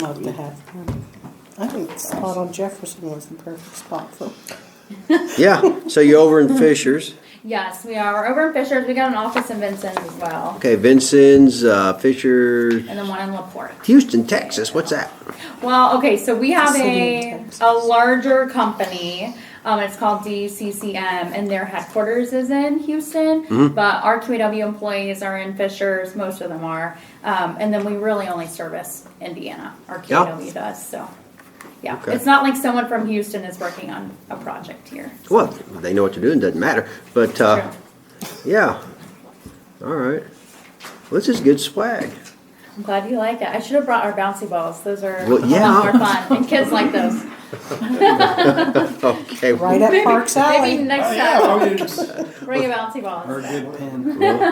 love to have them. I think the spot on Jefferson was the perfect spot for. Yeah, so you're over in Fishers. Yes, we are. We're over in Fishers. We got an office in Vincent's as well, Okay, Vincent's, uh, Fisher, and then one in LaPorte. Houston, Texas. What's that? Well, okay, so we have City a of Texas. a larger company. Um, it's called DCCM, and their headquarters is in Houston. Mm-hmm. But our QAW employees are in Fishers. Most of them are, um, and then we really only service Indiana. Our Yeah. QAW does so. Yeah, Okay. it's not like someone from Houston is working on a project here. Well, they know what they're doing, doesn't matter. But, uh, True. yeah. All right. Well, this is good swag. I'm glad you like it. I should have brought our bouncy balls. Those are Well, a yeah. lot more fun, and kids like those. Okay. Right at Parks Maybe Alley. next yeah, time, oh, you just- bring a bouncy or a balls. good pen. Yeah,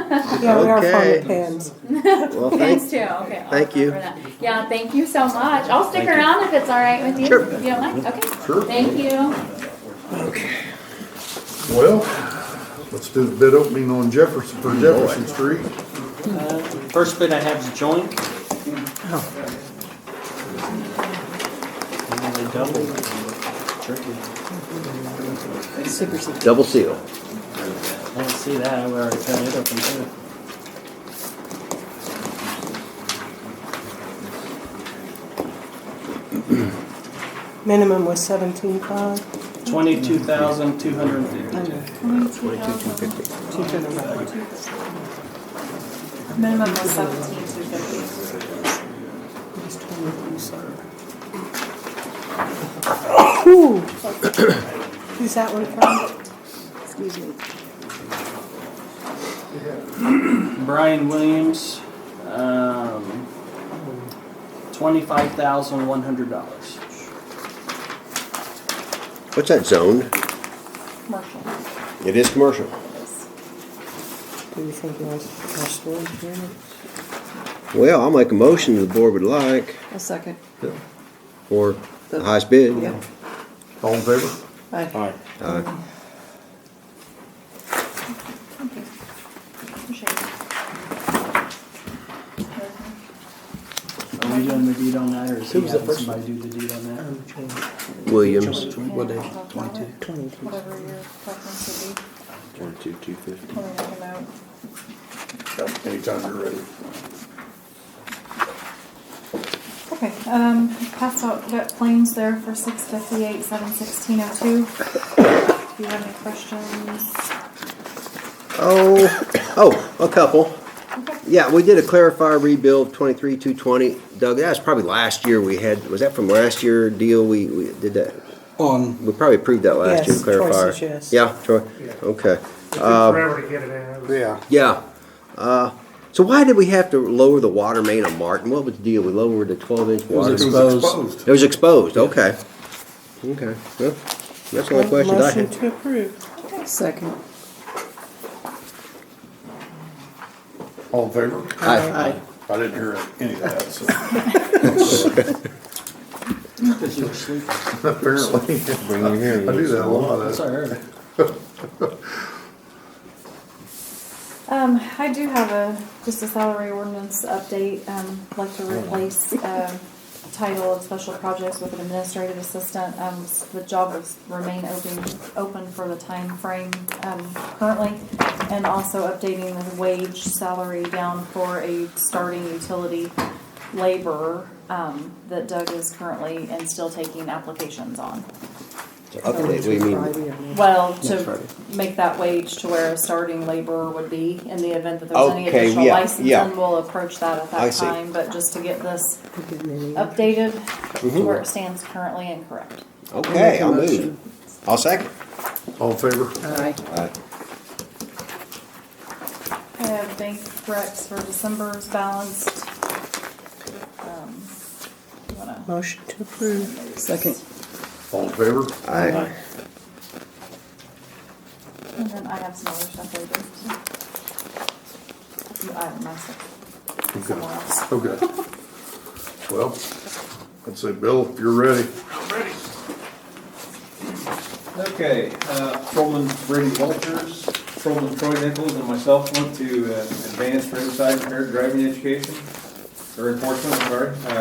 we are fond Okay. of pins. Well, Thanks thanks. too. Okay. I'll Thank you. cover that. Yeah, thank you so much. I'll stick around if it's all right with you. Sure. If you don't mind. Okay. Thank you. Well, let's do the bid opening on Jefferson, for Jefferson Street. First bid I have is joint. And they doubled. Tricky. Super secret. Double seal. I didn't see that, we already cut it open too. Minimum was seventeen five. Twenty-two thousand, two hundred and fifty. Two to the right. Minimum of seventeen two fifty. It was 22, sorry. Whew. Who's that one from? Excuse me. Brian Williams, um, twenty-five thousand, one hundred dollars. What's that zone? Commercial. It is commercial. Do you think he wants more storage units? Well, I'll make a motion the board would like A second. for the highest bid. Yeah. All in favor? Aye. Uh, Thank you. Appreciate it. Are we doing the deed on that, or is he having somebody do the deed on that? Williams. What day? Twenty-two. Twenty-two. Whatever your preference would be. Twenty-two, two fifty. Let me make a note. Anytime you're ready. Okay, um, pass out wet planes there for six fifty-eight, seven sixteen oh two. Do you have any questions? Oh, oh, a couple. Okay. Yeah, we did a clarifier rebuild twenty-three, two twenty. Doug, that was probably last year we had, was that from last year deal? We, we did that? On. We probably approved that last year, Yes, clarifier. choices, yes. Yeah, Troy, okay. It took forever to get it in. It was- Yeah. Yeah. Uh, so why did we have to lower the water main on Martin? What was the deal? We lowered the twelve inch It was water. exposed. It was exposed, okay. Okay, well, that's the only question I Motion had. to approve. Second. All in favor? Aye. I didn't hear any of that, so. Because you were sleeping. Apparently. Bring it here. I do that a That's lot. all right. Um, I do have a, just a salary ordinance update, um, like to replace, um, title of special projects with an administrative assistant. Um, s- the job will remain open, open for the time frame um, currently. And also updating the wage salary down for a starting utility laborer, um, that Doug is currently and still taking applications on. So Update, we mean, Friday, I mean. Well, That's to right. make that wage to where a starting laborer would be in the event that there's any Okay, additional yeah, yeah. licensing, we'll approach that at I that see. time, but just to get this We didn't really- updated to Mm-hmm. where it stands currently and correct. okay, Make a I'll move. motion. I'll second. All in favor? Aye. Aye. I have bank recs for December's balanced. Um, you wanna- Motion to approve. Second. All in favor? Aye. And then I have some other stuff later. too. I have myself, somewhere else. Okay. Well, I'd say, Bill, if you're ready. Okay, uh, Patrolman Brady Walters, Patrolman Troy Nichols, and myself went to uh, advanced roadside impaired driving education, or enforcement, sorry. Uh,